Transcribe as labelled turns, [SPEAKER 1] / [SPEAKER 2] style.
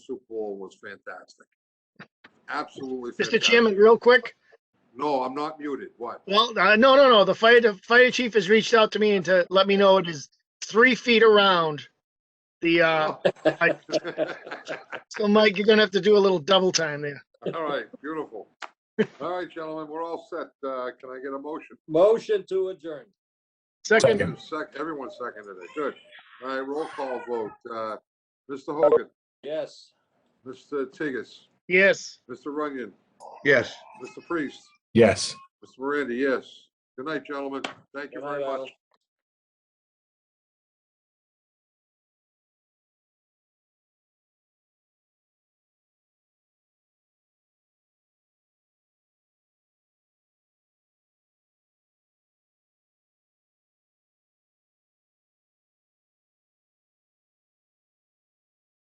[SPEAKER 1] Super Bowl was fantastic. Absolutely
[SPEAKER 2] Mr.
[SPEAKER 1] fantastic.
[SPEAKER 2] Chairman, real quick.
[SPEAKER 1] No, I'm not muted. What?
[SPEAKER 2] Well, uh, no, no, no. The fire, the fire chief has reached out to me and to let me know it is three feet around the,
[SPEAKER 1] Oh.
[SPEAKER 2] uh, so Mike, you're gonna have to do a little double time there.
[SPEAKER 1] All right, beautiful. All right, gentlemen, we're all set. Uh, Can I get a motion?
[SPEAKER 3] Motion to adjourn.
[SPEAKER 2] Second,
[SPEAKER 1] Sec- Everyone seconded it. Good. All right, roll call vote. Uh, Mr. Hogan,
[SPEAKER 3] Yes.
[SPEAKER 1] Mr. Tigas,
[SPEAKER 2] yes.
[SPEAKER 1] Mr. Runyon,
[SPEAKER 4] Yes.
[SPEAKER 1] Mr. Priest,
[SPEAKER 4] Yes.
[SPEAKER 1] Mr. Miranda, yes. Good night, gentlemen. Thank you
[SPEAKER 3] Good
[SPEAKER 1] very
[SPEAKER 3] night,
[SPEAKER 1] much.
[SPEAKER 3] Al.